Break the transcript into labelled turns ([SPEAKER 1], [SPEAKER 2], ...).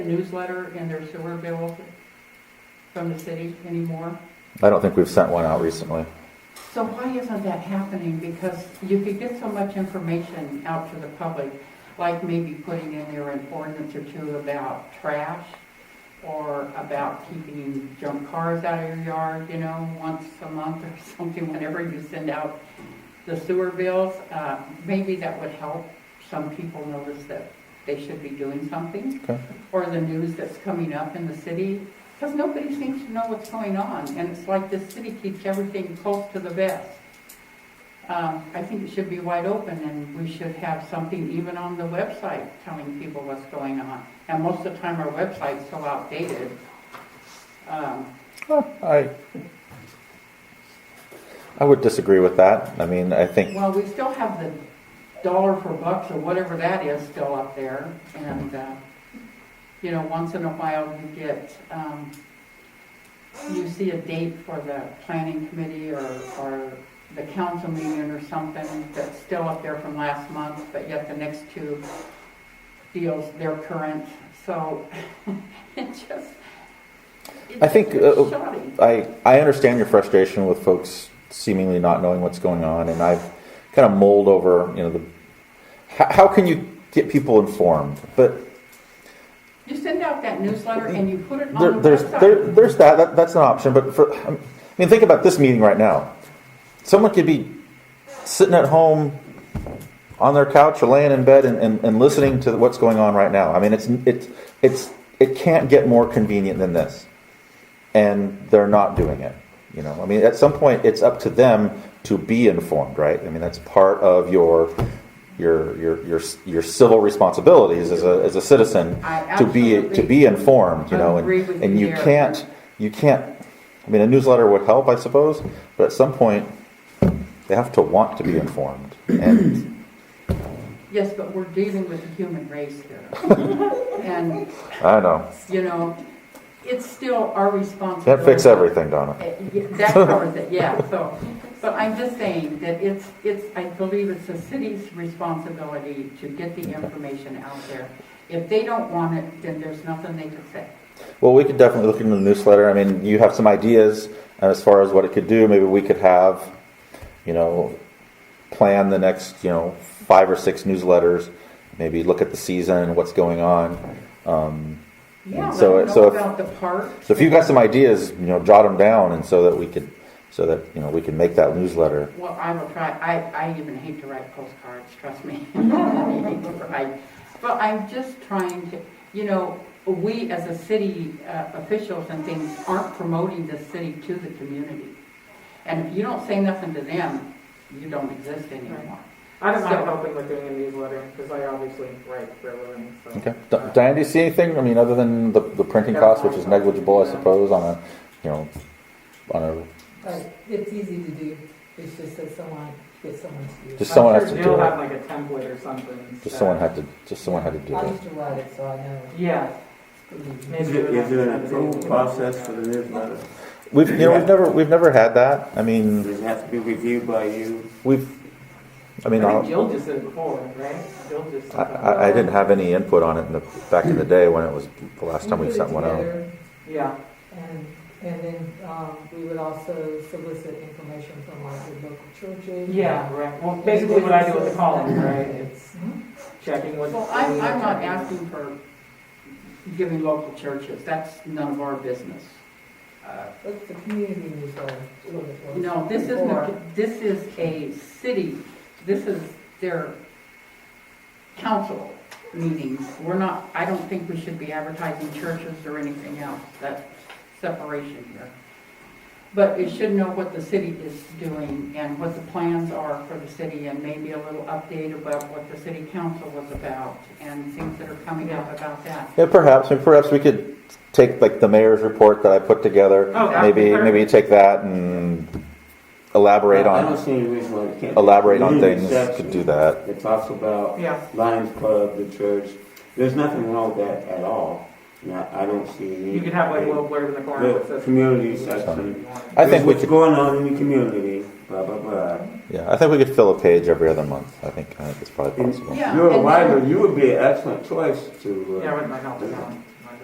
[SPEAKER 1] newsletter in their sewer bill from the city anymore?
[SPEAKER 2] I don't think we've sent one out recently.
[SPEAKER 1] So why isn't that happening? Because you could get so much information out to the public, like maybe putting in there an ordinance or two about trash or about keeping junk cars out of your yard, you know, once a month or something, whenever you send out the sewer bills. Uh, Maybe that would help some people notice that they should be doing something.
[SPEAKER 2] Okay.
[SPEAKER 1] Or the news that's coming up in the city, because nobody seems to know what's going on. And it's like the city keeps everything close to the vest. Um, I think it should be wide open and we should have something even on the website telling people what's going on. And most of the time our website's so outdated. Um,
[SPEAKER 2] I, I would disagree with that. I mean, I think,
[SPEAKER 1] Well, we still have the dollar for bucks or whatever that is still up there. And, uh, you know, once in a while you get, um, you see a date for the planning committee or, or the council meeting or something that's still up there from last month, but yet the next two deals, they're current. So it just.
[SPEAKER 2] I think,
[SPEAKER 1] it's
[SPEAKER 2] uh,
[SPEAKER 1] shoddy.
[SPEAKER 2] I, I understand your frustration with folks seemingly not knowing what's going on, and I've kind of mulled over, you know, the, how, how can you get people informed? But
[SPEAKER 1] You send out that newsletter and you put it on the
[SPEAKER 2] There,
[SPEAKER 1] website.
[SPEAKER 2] there's there, there's that, that that's an option, but for I mean, think about this meeting right now. Someone could be sitting at home on their couch or laying in bed and, and, and listening to what's going on right now. I mean, it's it's it's it can't get more convenient than this, and they're not doing it. You know, I mean, at some point, it's up to them to be informed, right? I mean, that's part of your your your your your civil responsibilities as a as a citizen
[SPEAKER 1] I
[SPEAKER 2] to be to
[SPEAKER 1] absolutely
[SPEAKER 2] be informed, you know, and,
[SPEAKER 1] agree with
[SPEAKER 2] and
[SPEAKER 1] you
[SPEAKER 2] you
[SPEAKER 1] there.
[SPEAKER 2] can't you can't. I mean, a newsletter would help, I suppose, but at some point, they have to want to be informed. And
[SPEAKER 1] Yes, but we're dealing with the human race here. And,
[SPEAKER 2] I know
[SPEAKER 1] you know, it's still our responsibility.
[SPEAKER 2] can't fix everything, Donna.
[SPEAKER 1] Uh, yeah, That covers it, yeah, so, but I'm just saying that it's, it's, I believe it's the city's responsibility to get the information out there. If they don't want it, then there's nothing they can say.
[SPEAKER 2] Well, we could definitely look into the newsletter. I mean, you have some ideas as far as what it could do. Maybe we could have, you know, plan the next, you know, five or six newsletters. Maybe look at the season, what's going on. Um,
[SPEAKER 1] Yeah, let
[SPEAKER 2] So-
[SPEAKER 1] them
[SPEAKER 2] so
[SPEAKER 1] know
[SPEAKER 2] if-
[SPEAKER 1] about the park.
[SPEAKER 2] So if you've got some ideas, you know, jot them down, and so that we could, so that you know, we can make that newsletter.
[SPEAKER 1] Well, I will try, I, I even hate to write postcards, trust me. I hate to write. But I'm just trying to, you know, we as a city uh, officials and things aren't promoting the city to the community. And if you don't say nothing to them, you don't exist anymore.
[SPEAKER 3] I don't
[SPEAKER 1] So-
[SPEAKER 3] mind helping with doing a newsletter, because I obviously write for a living, so.
[SPEAKER 2] Okay. D- Diane, do you see anything? I mean, other than the, the printing cost, which is negligible, I suppose, on a, you know, on a
[SPEAKER 4] Right, it's easy to do, it's just that someone, get someone to do it.
[SPEAKER 2] just someone
[SPEAKER 3] I'm
[SPEAKER 2] has
[SPEAKER 3] sure
[SPEAKER 2] to
[SPEAKER 3] They'll
[SPEAKER 2] do
[SPEAKER 3] have
[SPEAKER 2] it.
[SPEAKER 3] like a template or something.
[SPEAKER 2] Just
[SPEAKER 3] so-
[SPEAKER 2] someone had to, just someone had to do
[SPEAKER 4] I
[SPEAKER 2] it.
[SPEAKER 4] used to write it, so I know.
[SPEAKER 3] Yeah,
[SPEAKER 4] it's pretty easy.
[SPEAKER 3] maybe.
[SPEAKER 5] Is
[SPEAKER 3] we'll
[SPEAKER 5] it-
[SPEAKER 3] have
[SPEAKER 5] is there
[SPEAKER 3] to
[SPEAKER 5] an
[SPEAKER 3] have a
[SPEAKER 5] approval
[SPEAKER 3] meeting.
[SPEAKER 5] process for the newsletter?
[SPEAKER 2] We've, you know, we've never, we've never had that. I
[SPEAKER 5] Does
[SPEAKER 2] mean,
[SPEAKER 5] it have to be reviewed by you?
[SPEAKER 2] we've, I
[SPEAKER 3] I
[SPEAKER 2] mean,
[SPEAKER 3] think
[SPEAKER 2] I'll-
[SPEAKER 3] Jill just did it before, right? Jill just.
[SPEAKER 2] I, I, I didn't have any input on it in the, back in the day when it was the last time we
[SPEAKER 4] put it
[SPEAKER 2] sent one out.
[SPEAKER 4] together,
[SPEAKER 3] Yeah,
[SPEAKER 4] And, and then, um, we would also solicit information from like the local churches.
[SPEAKER 3] yeah, right, well, basically what I do with the column, right, it's
[SPEAKER 4] Mhm.
[SPEAKER 3] checking what's.
[SPEAKER 1] Well, I'm, I'm not asking for giving local churches, that's none of our business. Uh,
[SPEAKER 4] That's the community newsletter. is what it was.
[SPEAKER 1] No, this isn't,
[SPEAKER 4] Before.
[SPEAKER 1] a- this is a city, this is their council meetings. We're not, I don't think we should be advertising churches or anything else, that separation here. But it should know what the city is doing and what the plans are for the city and maybe a little update about what the city council was about and things that are coming up about that.
[SPEAKER 2] Yeah, perhaps, I mean, perhaps we could take like the mayor's report that I put together
[SPEAKER 3] Oh, that would be
[SPEAKER 2] maybe
[SPEAKER 3] perfect.
[SPEAKER 2] maybe take that and elaborate
[SPEAKER 5] I don't
[SPEAKER 2] on
[SPEAKER 5] see any reason why we can't.
[SPEAKER 2] elaborate on
[SPEAKER 5] Leave
[SPEAKER 2] things to
[SPEAKER 5] exception.
[SPEAKER 2] do that.
[SPEAKER 5] It talks about
[SPEAKER 3] Yeah,
[SPEAKER 5] Lions Club, the church. There's nothing wrong with that at all. And I, I don't see any.
[SPEAKER 3] you could have like a little blurb in the corner that
[SPEAKER 5] The
[SPEAKER 3] says.
[SPEAKER 5] community section.
[SPEAKER 2] I think
[SPEAKER 5] Here's
[SPEAKER 2] we
[SPEAKER 5] what's
[SPEAKER 2] could-
[SPEAKER 5] going on in the community, blah, blah, blah.
[SPEAKER 2] Yeah, I think we could fill a page every other month. I think I think it's probably
[SPEAKER 5] And
[SPEAKER 2] possible.
[SPEAKER 1] Yeah,
[SPEAKER 5] You're
[SPEAKER 1] and
[SPEAKER 5] a
[SPEAKER 1] then-
[SPEAKER 5] writer, you would be an excellent choice to. uh,
[SPEAKER 3] Yeah, with my help, yeah.